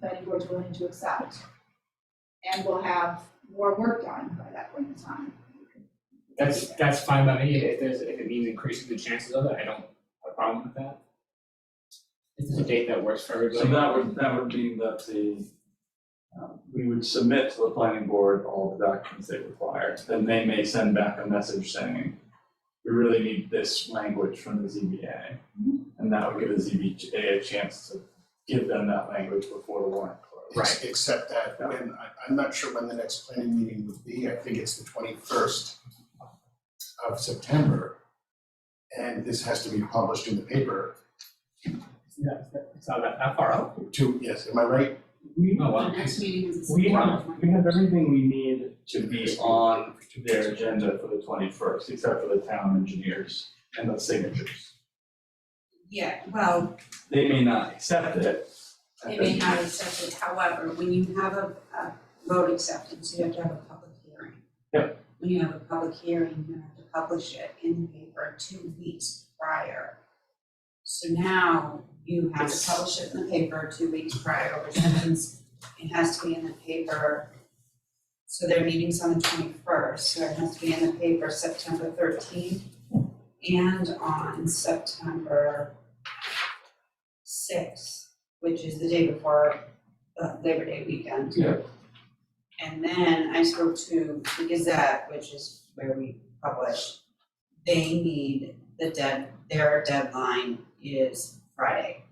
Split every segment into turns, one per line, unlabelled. planning board's willing to accept. And we'll have more work done by that point in time.
That's, that's fine by me, if there's, if it means increasing the chances of it, I don't have a problem with that. This is a date that works for
So
everybody.
that would, that would mean that the, um, we would submit to the planning board all the documents they require. Then they may send back a message saying, we really need this language from the ZBA.
Mm-hmm.
And that would give the ZBA a chance to give them that language before the warrant closes.
Right.
Except that when, I, I'm not sure when the next planning meeting would be, I think it's the twenty-first of September. And this has to be published in the paper
Yeah, it's not that, that far out.
too, yes, am I right?
We,
Oh,
The
wow.
next meeting is the
we have,
September
we have everything we need to be on their agenda for the twenty-first, except for the town engineers and the signatures.
Yeah, well,
They may not accept it.
they may not accept it, however, when you have a, a vote acceptance, you have to have a public hearing.
Yep.
When you have a public hearing, you have to publish it in the paper two weeks prior. So now you have to publish it in the paper two weeks prior, which means it has to be in the paper. So their meeting's on the twenty-first, so it has to be in the paper September thirteenth and on September sixth, which is the day before the Labor Day weekend.
Yeah.
And then I spoke to the Gazette, which is where we publish. They need the dead, their deadline is Friday.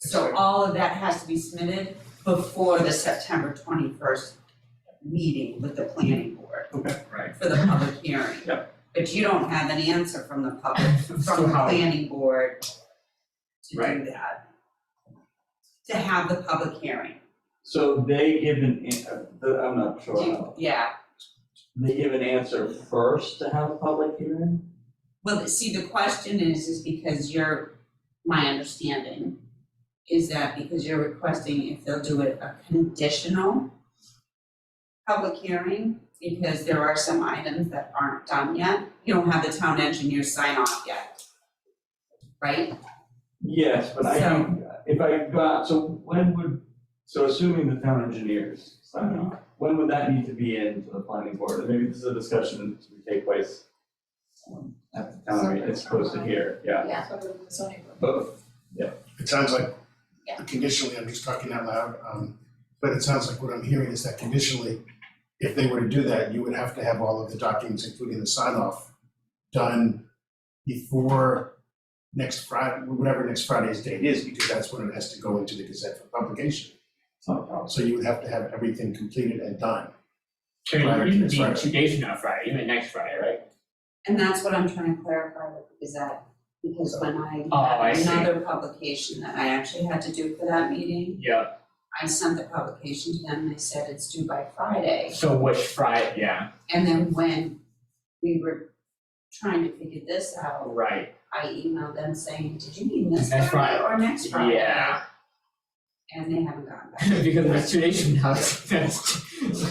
So all of that has to be submitted before the September twenty-first meeting with the planning board.
Okay.
Right.
For the public hearing.
Yep.
But you don't have an answer from the public, from the
how-
planning board to do
Right.
that. To have the public hearing.
So they give an, an- uh, the- I'm not sure,
You-
how-
Yeah,
they give an answer first to have a public hearing?
well, see, the question is, is because you're, my understanding is that because you're requesting if they'll do it a conditional public hearing, because there are some items that aren't done yet, you don't have the town engineer sign off yet. Right?
Yes, but I don't, if I got, so when would, so assuming the town engineers sign off, when would that need to be in to the planning board? And Maybe this is a discussion to take place um, at the town meeting, it's posted here, yeah.
Yeah.
So the zoning board.
But
It sounds like
Yeah.
conditionally, I'm just talking out loud, um, but it sounds like what I'm hearing is that conditionally, if they were to do that, you would have to have all of the documents, including the sign off, done before next Friday, whatever next Friday's date is, because that's when it has to go into the Gazette for publication.
it's not a problem.
So you would have to have everything completed and done.
I mean,
Right,
even
that's
being
right.
two days from now Friday, even next Friday, right?
And that's what I'm trying to clarify with the Gazette, because when
Oh, I
I had
see.
another publication that I actually had to do for that meeting,
Yeah,
I sent the publication to them, and they said it's due by Friday.
so which Friday, yeah,
And then when we were trying to figure this out,
right,
I emailed them saying, did you mean this
Next
Friday or next Friday?
yeah.
And they haven't gotten back.
Because if it's two days from now, that's, that's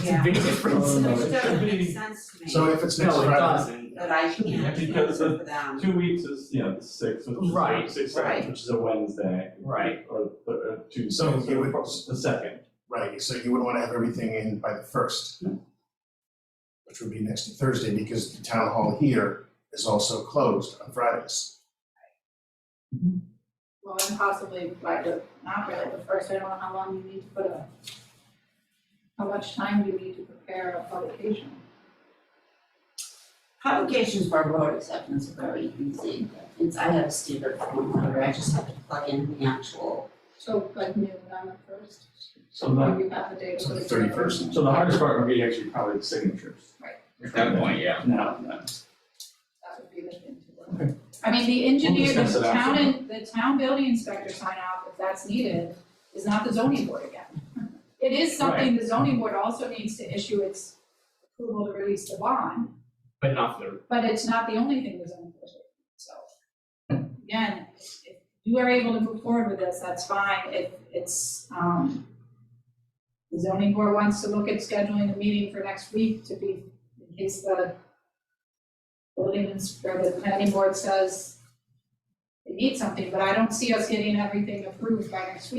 a big difference.
Oh, no,
Which
it
doesn't
should
make
be-
sense to me.
So if it's next
No, it
Friday,
doesn't.
But I can't
Yeah,
answer
because
for them.
Two weeks is, you know, the sixth, which is,
Right,
sixth,
right.
which is a Wednesday.
Right.
Or, or- or Tuesday,
So
so
you would-
the second.
right, so you would wanna have everything in by the first. Which would be next Thursday, because the town hall here is also closed on Fridays.
Well, and possibly by the, not really the first, I don't know how long you need to put a, how much time you need to prepare a publication.
Publications for road acceptance are very easy. It's, I have a standard form where I just have to plug in the actual.
So like noon on the first,
So
or
the,
you have the day
So
before
the
the.
31st.
so the hardest part would be actually probably the signatures.
At that point, yeah.
Now, no.
That would be the thing to work. I mean, the engineer,
discuss
the
it
town,
after.
and the town building inspector sign off, if that's needed, is not the zoning board again. It is something the zoning board also needs to issue its approval to release the bond,
But not for
but it's not the only thing the zoning board, does. so. Again, if you are able to move forward with this, that's fine, if it's, um, the zoning board wants to look at scheduling a meeting for next week to be, in case the building inspector, the planning board says that need something, but I don't see us getting everything approved by next week.